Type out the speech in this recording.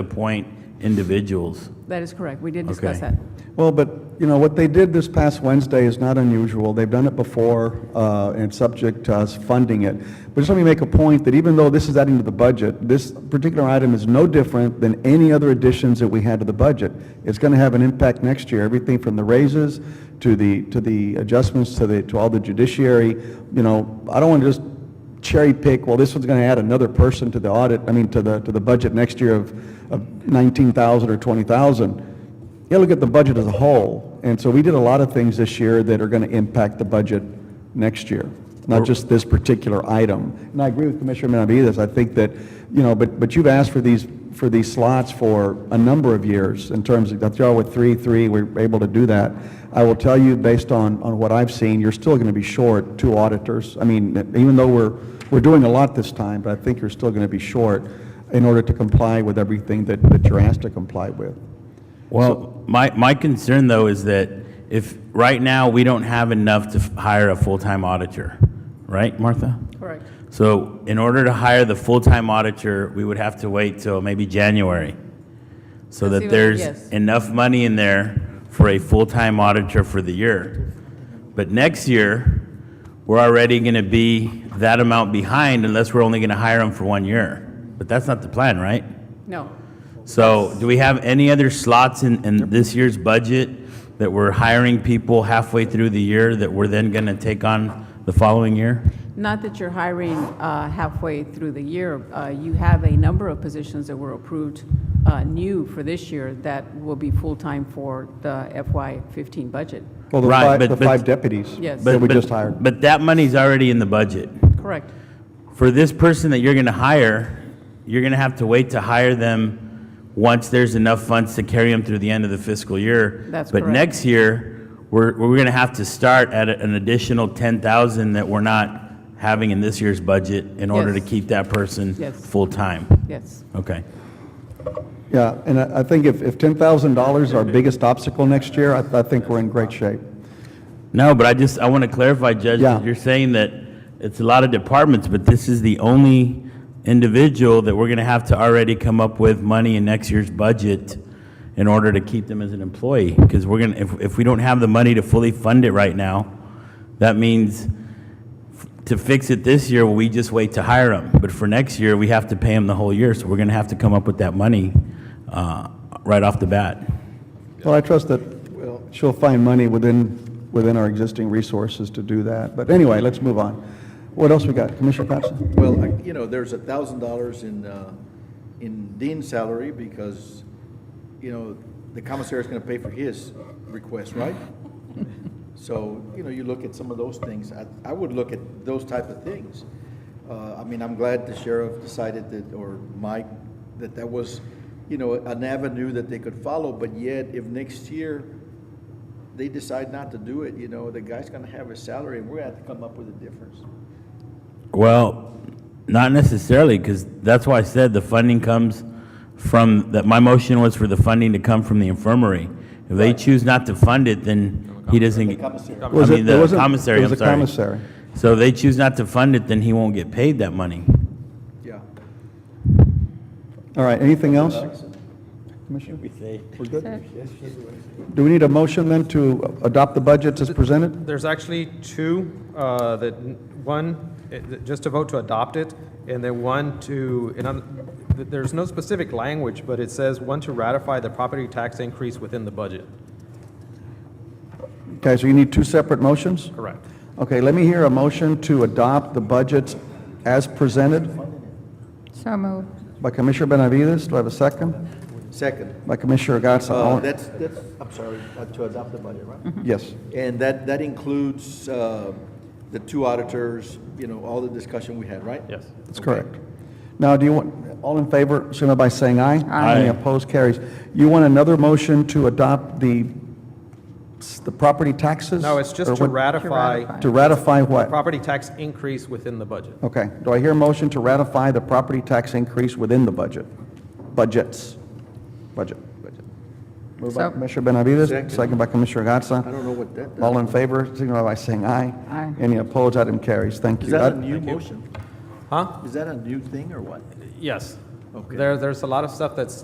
appoint individuals. That is correct. We did discuss Okay. that. Well, but, you know, what they did this past Wednesday is not unusual. They've done it before, uh, and it's subject to us funding it. But just let me make a point that even though this is adding to the budget, this particular item is no different than any other additions that we had to the budget. It's going to have an impact next year, everything from the raises to the, to the adjustments to the, to all the judiciary. You know, I don't want to just cherry pick, well, this one's going to add another person to the audit, I mean, to the, to the budget next year of, of 19,000 or 20,000 you look at the budget as a whole, and so we did a lot of things this year that are going to impact the budget next year, not just this particular item. And I agree with Commissioner Benavides, I think that, you know, but, but you've asked for these, for these slots for a number of years in terms of, that's all with three, three, we're able to do that. I will tell you, based on, on what I've seen, you're still going to be short two auditors. I mean, even though we're, we're doing a lot this time, but I think you're still going to be short in order to comply with everything that, that you're asked to comply with. Well, my, my concern though is that if, right now, we don't have enough to f- hire a full-time auditor, right, Martha? Correct. So in order to hire the full-time auditor, we would have to wait till maybe January. So Let's see that what- there's yes. enough money in there for a full-time auditor for the year. But next year, we're already going to be that amount behind unless we're only going to hire them for one year. But that's not the plan, right? No. So do we have any other slots in, in this year's budget that we're hiring people halfway through the year that we're then going to take on the following year? Not that you're hiring uh, halfway through the year. Uh, You have a number of positions that were approved uh, new for this year that will be full-time for the FY15 budget. Well, the Right, five, but- the but- five deputies Yes. that we But- just but- hired. But that money's already in the budget. Correct. For this person that you're going to hire, you're going to have to wait to hire them once there's enough funds to carry them through the end of the fiscal year. That's But correct. next year, we're, we're going to have to start at a- an additional 10,000 that we're not having in this year's budget in order to Yes. keep that person Yes. full-time. Yes. Okay. Yeah, and I, I think if, if ten thousand dollars is our biggest obstacle next year, I, I think we're in great shape. No, but I just, I want to clarify, Judge, Yeah. you're saying that it's a lot of departments, but this is the only individual that we're going to have to already come up with money in next year's budget in order to keep them as an employee, because we're going to, if, if we don't have the money to fully fund it right now, that means f- to fix it this year, we just wait to hire them, but for next year, we have to pay them the whole year, so we're going to have to come up with that money, uh, right off the bat. Well, I trust that she'll find money within, within our existing resources to do that. But anyway, let's move on. What else we got? Commissioner Patterson? Well, I- you know, there's a thousand dollars in, uh, in Dean's salary because, you know, the commissary's gonna pay for his request, right? So, you know, you look at some of those things, I, I would look at those type of things. Uh, I mean, I'm glad the sheriff decided that, or Mike, that that was, you know, an avenue that they could follow, but yet if next year they decide not to do it, you know, the guy's gonna have his salary and we're gonna have to come up with a difference. Well, not necessarily, because that's why I said the funding comes from, that my motion was for the funding to come from the infirmary. If they choose not to fund it, then he doesn't, Commissary. I Was it- mean, there the wasn't- commissary, there I'm was a sorry. commissary. So if they choose not to fund it, then he won't get paid that money. Yeah. All right, anything else? Commissioner? We're good? Do we need a motion then to adopt the budget as presented? There's actually two, uh, that, one, it- just to vote to adopt it, and then one to, and I'm, th- there's no specific language, but it says one to ratify the property tax increase within the budget. Okay, so you need two separate motions? Correct. Okay, let me hear a motion to adopt the budget as presented So moved. by Commissioner Benavides. Do I have a second? Second. By Commissioner Gatsa. Uh, All- That's, that's, I'm sorry, uh, to adopt the budget, right? Yes. And that, that includes uh, the two auditors, you know, all the discussion we had, right? Yes. That's correct. Now, do you want, all in favor, signify by saying aye. Aye. Any opposed, carries. You want another motion to adopt the, the property taxes? No, it's Or just to what- ratify ratify. To ratify what? property tax increase within the budget. Okay. Do I hear a motion to ratify the property tax increase within the budget? Budgets. Budget. Moved by So- Commissioner Benavides, Second. second by Commissioner Gatsa. I don't know what that All does. in favor, signify by saying aye. Aye. Any opposed, item carries. Thank you. Is that a That- new motion? Huh? Is that a new thing or what? Yes. Okay. There, there's a lot of stuff that's